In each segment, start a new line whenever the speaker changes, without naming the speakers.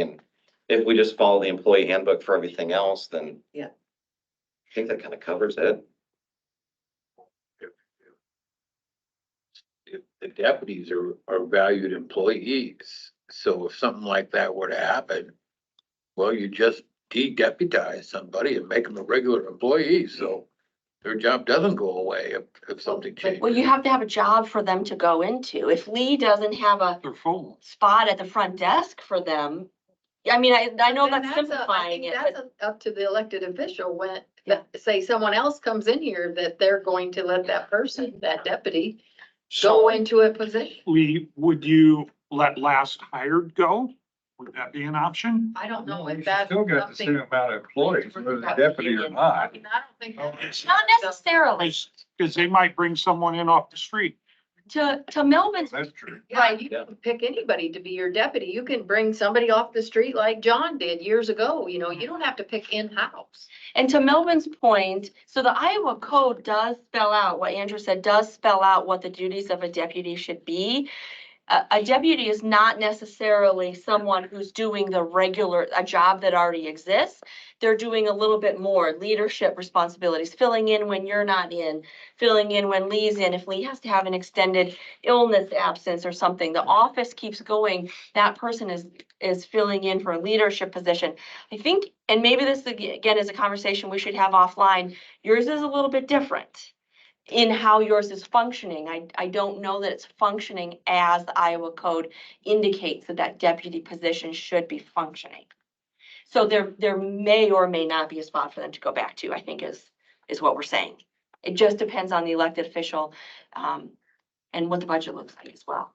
And if we just follow the employee handbook for everything else, then.
Yeah.
I think that kind of covers it.
if the deputies are, are valued employees. So if something like that were to happen, well, you just de-deputize somebody and make them a regular employee, so their job doesn't go away if, if something changes.
Well, you have to have a job for them to go into. If Lee doesn't have a
Their phone.
spot at the front desk for them, I mean, I, I know
And
that's
a- I
simplifying
think
it,
that's
but
a- Up to the elected official when, that- say someone else comes in here that they're going to let that person, that deputy, go into a position.
Lee, would you let last hired go? Would that be an option?
I don't know
No, you
if
should
that's
Still got the same
something.
amount of employees, whether the deputy or
I
not. Oh,
mean, I don't think. that's-
not necessarily.
Because they might bring someone in off the street.
To, to Melvin's,
That's true.
Yeah, you can pick anybody to be your deputy. You can bring somebody off the street like John did years ago, you know, you don't have to pick in-house.
and to Melvin's point, so the Iowa code does spell out, what Andrew said, does spell out what the duties of a deputy should be. A, a deputy is not necessarily someone who's doing the regular, a job that already exists. They're doing a little bit more leadership responsibilities, filling in when you're not in, filling in when Lee's in, if Lee has to have an extended illness absence or something, the office keeps going, that person is, is filling in for a leadership position. I think, and maybe this ag- again is a conversation we should have offline, yours is a little bit different in how yours is functioning. I, I don't know that it's functioning as the Iowa code indicates that that deputy position should be functioning. So there, there may or may not be a spot for them to go back to, I think is, is what we're saying. It just depends on the elected official, um, and what the budget looks like as well.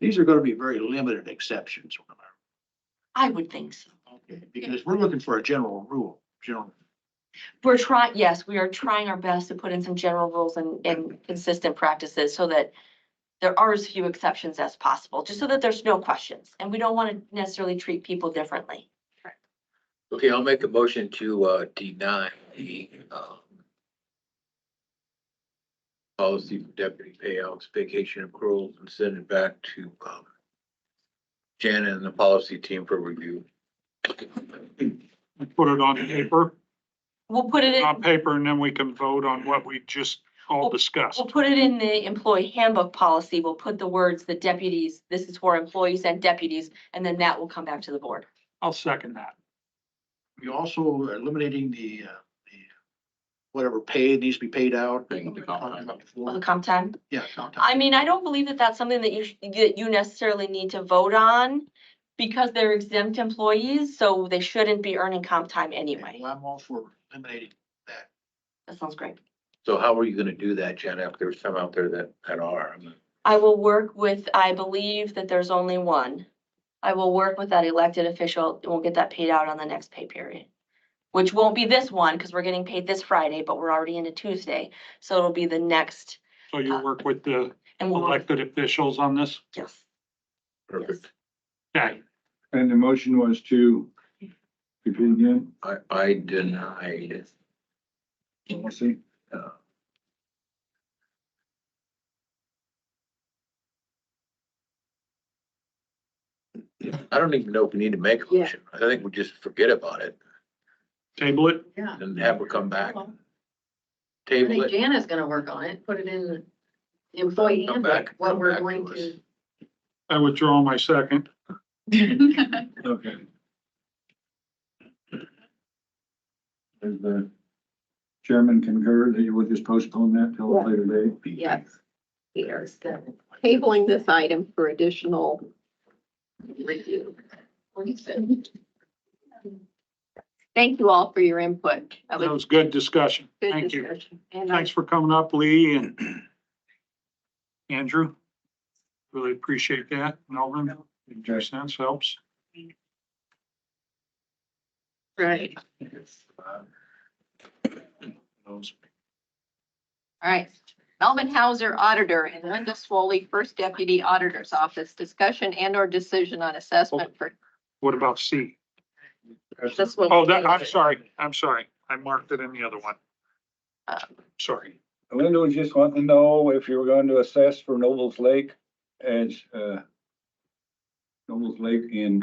These are gonna be very limited exceptions.
I would think so.
okay, Because we're looking for a general rule, general.
We're trying, yes, we are trying our best to put in some general rules and, and consistent practices so that there are as few exceptions as possible, just so that there's no questions. And we don't want to necessarily treat people differently.
Okay, I'll make a motion to, uh, deny the, um, policy for deputy payouts, vacation accruals, and send it back to, um, Janet and the policy team for review.
Put it on paper,
We'll put it
on
in,
paper, and then we can vote on what we just all discussed.
we'll put it in the employee handbook policy. We'll put the words, the deputies, this is for employees and deputies, and then that will come back to the board.
I'll second that.
You're also eliminating the, uh, the whatever pay needs to be paid out.
Will it come time?
Yeah. comp time.
I mean, I don't believe that that's something that you, sh- that you necessarily need to vote on because they're exempt employees, so they shouldn't be earning comp time anyway.
Well, I'm all for eliminating that.
That sounds great.
So how are you gonna do that, Jen, if there's some out there that, that are?
I will work with, I believe that there's only one. I will work with that elected official, and we'll get that paid out on the next pay period. Which won't be this one, because we're getting paid this Friday, but we're already into Tuesday, so it'll be the next,
So you work with the
and we'll,
elected officials on this?
yes, yes.
Perfect.
Okay,
And the motion was to, repeat again,
I, I deny
policy,
I don't even know if we need to make a
Yeah.
motion. I think we just forget about it
table it.
Yeah.
and have her come back.
Well, I
Table
think
it.
Jana's gonna work on it, put it in the employee
Come
handbook,
back-
what
come
we're
back
going
us.
to.
I withdraw my second.
okay. Does the chairman concur that you would just postpone that till a later date?
Yes. We are still tabling this item for additional review. Thank you all for your input. That
That
was
was good discussion.
good
Thank you.
discussion. And I
Thanks for coming up, Lee and Andrew. Really appreciate that. Melvin, your sense helps.
Right. All right. Melvin Hauser, Auditor, and Linda Swoley, First Deputy Auditor's Office, discussion and or decision on assessment for
What about C?
this one.
Oh, that, I'm sorry, I'm sorry. I marked it in the other one.
Uh.
Sorry.
Linda was just wanting to know if you were going to assess for Nobles Lake as, uh, Nobles Lake in